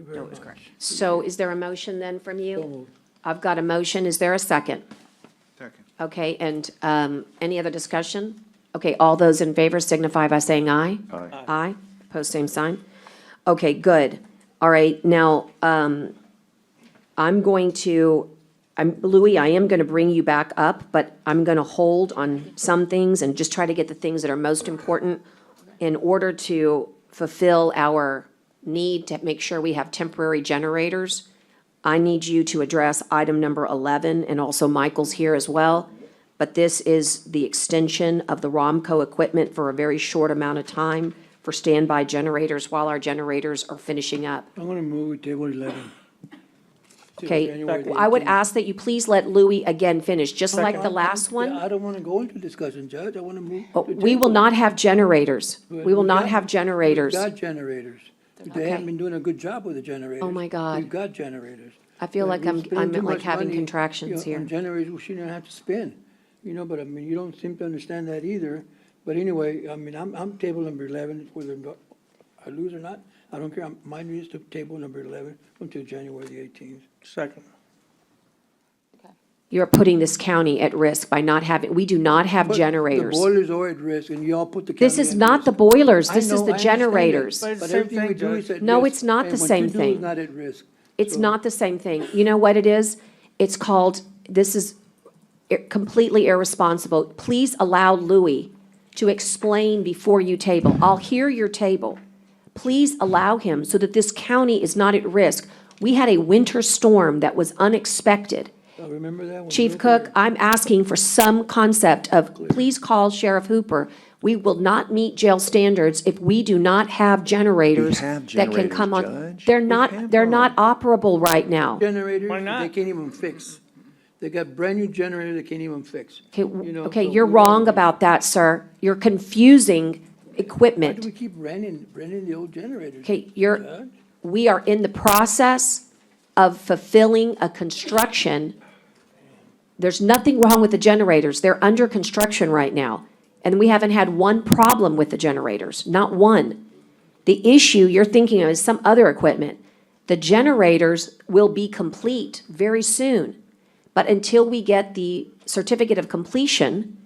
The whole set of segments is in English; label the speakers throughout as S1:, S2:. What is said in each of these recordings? S1: very
S2: No, it was
S1: much.
S2: correct.
S3: So is there a motion then from you? I've got a motion. Is there a second?
S4: Second.
S3: Okay, and um, any other discussion? Okay, all those in favor signify by saying aye.
S4: Aye.
S3: Aye, post same sign. Okay, good. All right, now, um, I'm going to, I'm, Louis, I am gonna bring you back up, but I'm gonna hold on some things and just try to get the things that are most important in order to fulfill our need to make sure we have temporary generators. I need you to address item number 11, and also Michael's here as well. But this is the extension of the ROMCO equipment for a very short amount of time for standby generators while our generators are finishing up.
S1: I'm gonna move with table eleven. Till
S3: Okay?
S1: January
S3: I would
S1: 19th.
S3: ask that you please let Louis again finish, just like the last
S1: Yeah,
S3: one.
S1: I don't wanna go into discussion, Judge, I wanna move.
S3: Oh,
S1: to
S3: We
S1: table.
S3: will not have generators.
S1: But
S3: We will not
S1: got-
S3: have generators.
S1: We've got generators. They
S3: Okay. Oh
S1: haven't been doing a good job with the generators.
S3: my God.
S1: We've got generators.
S3: I feel
S1: But
S3: like
S1: we
S3: I'm-
S1: spend
S3: I'm
S1: too
S3: like
S1: much
S3: having
S1: money,
S3: contractions here.
S1: you know, On generators, we shouldn't have to spend, you know, but I mean, you don't seem to understand that either. But anyway, I mean, I'm, I'm table number eleven, whether I lose or not, I don't care. Mine is to table number eleven until January the eighteenth.
S2: Second.
S3: You're putting this county at risk by not having, we do not have
S1: But
S3: generators.
S1: The boilers are at risk, and y'all put the county
S3: This is
S1: at
S3: not
S1: risk.
S3: the boilers,
S1: I
S3: this
S1: know,
S3: is
S1: I
S3: the
S1: understand that,
S3: generators.
S2: But it's the
S1: But
S2: same
S1: everything we
S2: thing,
S1: do
S2: Judge.
S1: is at risk.
S3: No, it's not
S1: and
S3: the
S1: what
S3: same
S1: you do is
S3: thing.
S1: not at risk.
S3: It's
S1: So-
S3: not the same thing. You know what it is? It's called, this is i- completely irresponsible. Please allow Louis to explain before you table. I'll hear your table. Please allow him so that this county is not at risk. We had a winter storm that was unexpected.
S1: I uh, remember that one.
S3: Chief
S1: real
S3: Cook,
S1: clear.
S3: I'm asking for some concept of, please call Sheriff Hooper. We will not meet jail standards if we do not have generators
S4: have
S3: that can
S4: generators,
S3: come on.
S4: Judge.
S3: They're
S4: We
S3: not,
S4: have
S3: they're
S4: one.
S3: not operable right now.
S1: Generators,
S2: Why
S1: that
S2: not?
S1: they can't even fix. They got brand-new generators they can't even fix.
S3: Okay,
S1: You know,
S3: w- okay,
S1: so
S3: you're
S1: we don't-
S3: wrong about that, sir. You're confusing
S1: Why do
S3: equipment.
S1: we keep renting, renting the old generators?
S3: Okay, you're,
S1: Judge?
S3: we are in the process of fulfilling a construction. There's nothing wrong with the generators. They're under construction right now. And we haven't had one problem with the generators, not one. The issue you're thinking of is some other equipment. The generators will be complete very soon. But until we get the certificate of completion,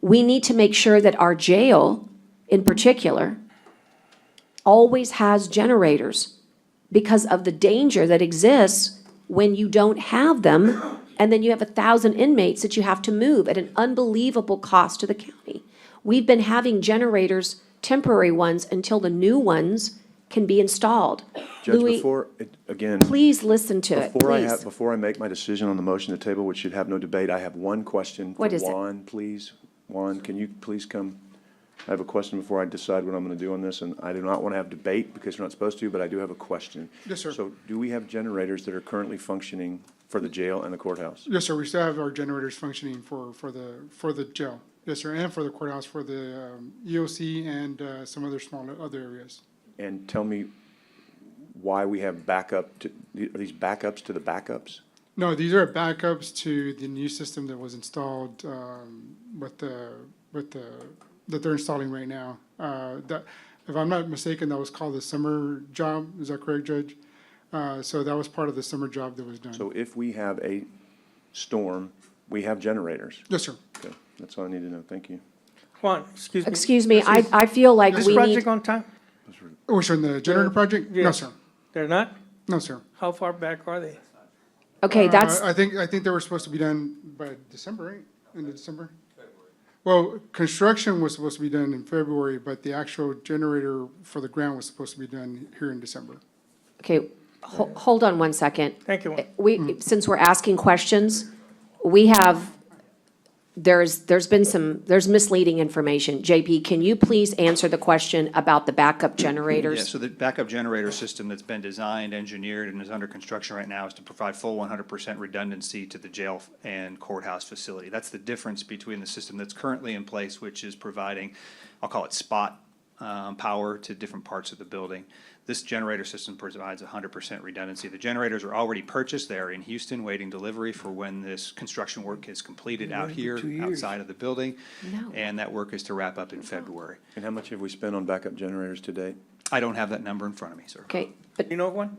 S3: we need to make sure that our jail, in particular, always has generators because of the danger that exists when you don't have them, and then you have a thousand inmates that you have to move at an unbelievable cost to the county. We've been having generators, temporary ones, until the new ones can be installed.
S4: Judge,
S3: Louis,
S4: before, it- again,
S3: Please listen to it,
S4: before I have,
S3: please.
S4: before I make my decision on the motion to table, which should have no debate, I have one question. for
S3: What is it?
S4: Juan, please. Juan, can you please come? I have a question before I decide what I'm going to do on this, and I do not want to have debate because we're not supposed to, but I do have a question.
S5: Yes, sir.
S4: So do we have generators that are currently functioning for the jail and the courthouse?
S5: Yes, sir, we still have our generators functioning for, for the, for the jail. Yes, sir, and for the courthouse, for the um, EOC and uh, some other small, other areas.
S4: And tell me why we have backup, to- are these backups to the backups?
S5: No, these are backups to the new system that was installed um, with the, with the, that they're installing right now. Uh, That, if I'm not mistaken, that was called the summer job, is that correct, Judge? Uh, So that was part of the summer job that was done.
S4: So if we have a storm, we have generators.
S5: Yes, sir.
S4: Okay, That's all I need to know. Thank you.
S2: Juan, excuse me.
S3: Excuse me, I,
S2: Is
S3: I feel like
S2: This
S3: we
S2: project
S3: need,
S2: on time?
S5: Which on Oh, the generator project? No,
S2: Yes.
S5: sir.
S2: They're not?
S5: No, sir.
S2: How far back are they?
S3: okay,
S5: Uh,
S3: that's,
S5: I think, I think they were supposed to be done by December, right? End of December? Well, construction was supposed to be done in February, but the actual generator for the ground was supposed to be done here in December.
S3: okay, ho- hold on one second.
S2: Thank you, Juan.
S3: we, since we're asking questions, we have, there's, there's been some, there's misleading information. JP, can you please answer the question about the backup
S6: Yeah,
S3: generators?
S6: so the backup generator system that's been designed, engineered, and is under construction right now is to provide full one hundred percent redundancy to the jail and courthouse facility. That's the difference between the system that's currently in place, which is providing, I'll call it spot, um, power to different parts of the building. This generator system provides hundred percent redundancy. The generators are already purchased there in Houston, waiting delivery for when this construction work is completed out here,
S1: two years.
S6: outside of the building.
S3: No.
S6: And that work is to wrap up in February.
S4: And how much have we spent on backup generators to date?
S6: I don't have that number in front of me, sir.
S3: Okay, but
S2: You know, Juan?